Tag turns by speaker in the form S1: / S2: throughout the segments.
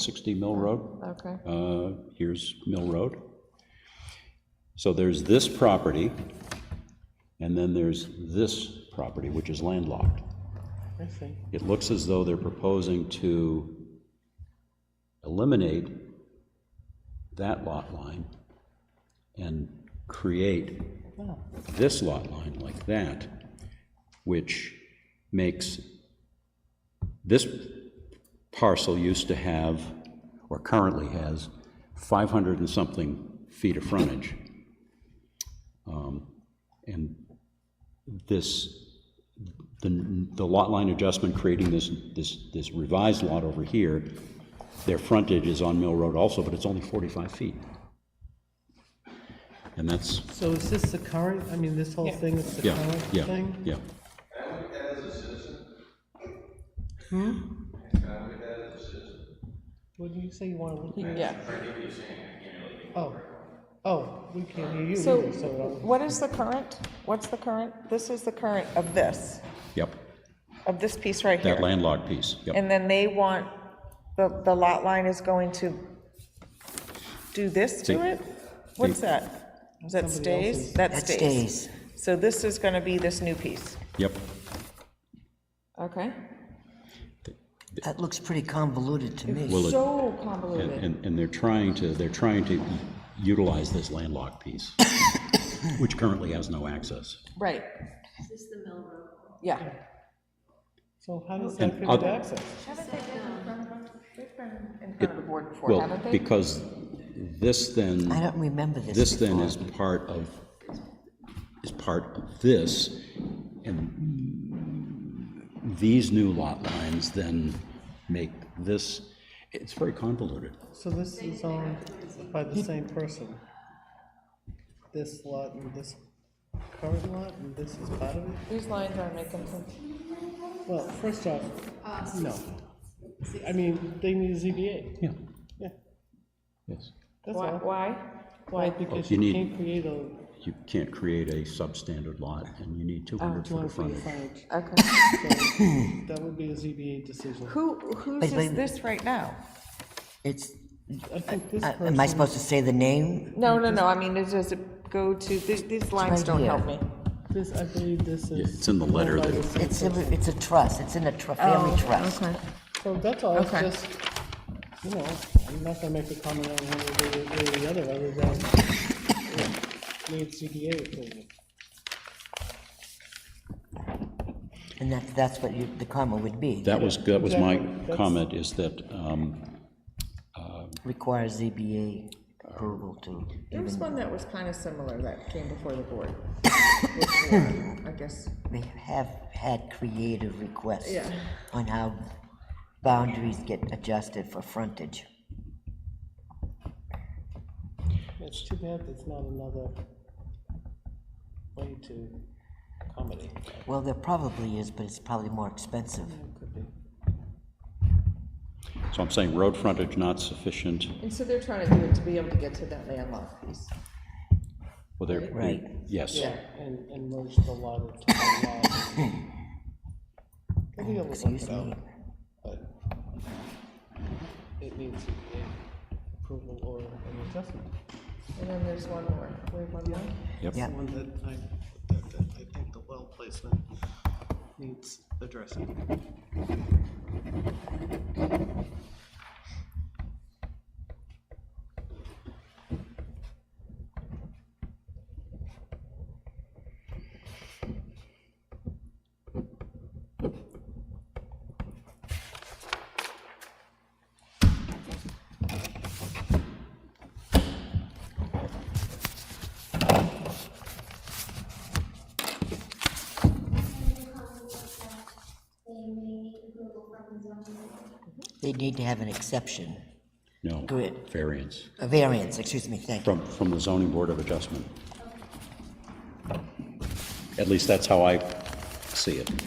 S1: 60 Mill Road.
S2: Okay,
S1: Uh, Here's Mill Road. So there's this property, and then there's this property, which is landlocked.
S2: I see.
S1: It looks as though they're proposing to eliminate that lot line and create this lot line like that, which makes, this parcel used to have, or currently has, 500 and something feet of frontage. Um, And this the, the lot line adjustment creating this, this, this revised lot over here, their frontage is on Mill Road also, but it's only 45 feet. And that's,
S3: So is this the current, I mean, this whole thing is the
S1: yeah,
S3: current
S1: yeah,
S3: thing?
S1: yeah.
S3: What do you say you want to look at?
S2: Yeah.
S3: Oh, oh, we can't hear you
S2: So
S3: either, so, uh,
S2: what is the current? What's the current? This is the current of this,
S1: Yep,
S2: of this piece right
S1: that
S2: here.
S1: landlocked piece, yep.
S2: And then they want, the, the lot line is going to do this to
S1: See.
S2: it? What's that? Is that stays? That
S4: That
S2: stays.
S4: stays.
S2: So this is going to be this new piece.
S1: Yep,
S2: Okay.
S4: That looks pretty convoluted to me.
S1: Well, it-
S2: So
S1: and,
S2: Oh, convoluted.
S1: and- and they're trying to, they're trying to utilize this landlocked piece, which currently has no access.
S2: Right. Is this the mill road? Yeah.
S3: so how does that
S1: And
S3: give
S1: other-
S3: it access?
S2: Haven't they been in front of us? They've been in front of the board before,
S1: Well,
S2: haven't they?
S1: because this then.
S4: I don't remember this.
S1: This then
S4: before.
S1: is part of, is part of this, and these new lot lines then make this, it's very convoluted.
S3: So this is owned by the same person? This lot and this current lot, and this is part of it?
S2: These lines aren't making sense.
S3: Well, first off, no. I mean, they need a ZBA,
S1: Yeah,
S3: yeah,
S1: yes.
S3: that's
S2: Why,
S3: all.
S2: why?
S3: Why, because
S1: Oh, you
S3: you
S1: need-
S3: can't create a
S1: You can't create a substandard lot, and you need 200 foot
S3: 200
S1: of
S3: feet of
S1: frontage.
S3: frontage,
S2: Okay.
S3: so that would be a ZBA decision.
S2: Who, whose
S4: Wait, wait.
S2: is this right now?
S4: It's,
S3: I think this
S4: I- am I
S3: person,
S4: supposed to say the name?
S2: No, no, no, I mean, it does it go to, these, these lines
S4: right
S2: don't
S4: here.
S2: help me.
S3: this, I believe this is.
S1: it's in the letter
S3: owned by
S1: that-
S3: the same
S4: It's, a- it's a trust, it's in a
S3: Oh,
S4: tr- family trust.
S3: So that's all, it's
S2: Okay.
S3: just, you know, I'm not gonna make a comment on one way or the- way or the other, other than it needs CDA approval.
S4: And that, that's what you, the comment would be,
S1: That was, that was my
S3: Exactly, that's-
S1: comment, is that, um,
S4: requires ZBA approval to,
S2: There was one that was kind of similar that came before the board. Before, I guess,
S4: they have had creative requests
S2: Yeah.
S4: on how boundaries get adjusted for frontage.
S3: It's too bad there's not another way to accommodate. that.
S4: Well, there probably is, but it's probably more expensive.
S3: It could be.
S1: so I'm saying road frontage not sufficient,
S2: and so they're trying to do it to be able to get to that landlocked piece.
S1: well, there.
S4: Right.
S1: Yes,
S3: Yeah, and, and merge the lot into one lot. We'll be able to work
S4: Excuse
S3: it
S4: me.
S3: out, but it needs CDA approval or an adjustment.
S2: And then there's one more, we have one more?
S1: yep.
S4: Yeah.
S3: The one that I, that, that I think the well placement needs addressing.
S4: They need to have an exception,
S1: No,
S4: Good.
S1: variance,
S4: a variance, excuse me, thank you.
S1: from, from the zoning board of adjustment. At least that's how I see it.
S2: And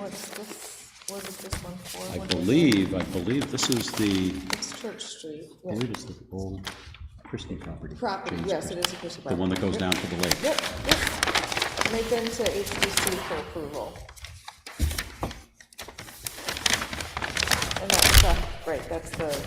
S2: what's this, what is this one for?
S1: I
S2: What is-
S1: believe, I believe this is the,
S2: It's Church Street,
S1: I
S2: yeah.
S1: believe it's the old Christie property.
S2: property,
S1: James
S2: yes, it
S1: Christie.
S2: is a Christie
S1: The one
S2: property.
S1: that goes down to the lake.
S2: Yep, yep. Make them to HDC for approval. And that's, uh, right, that's the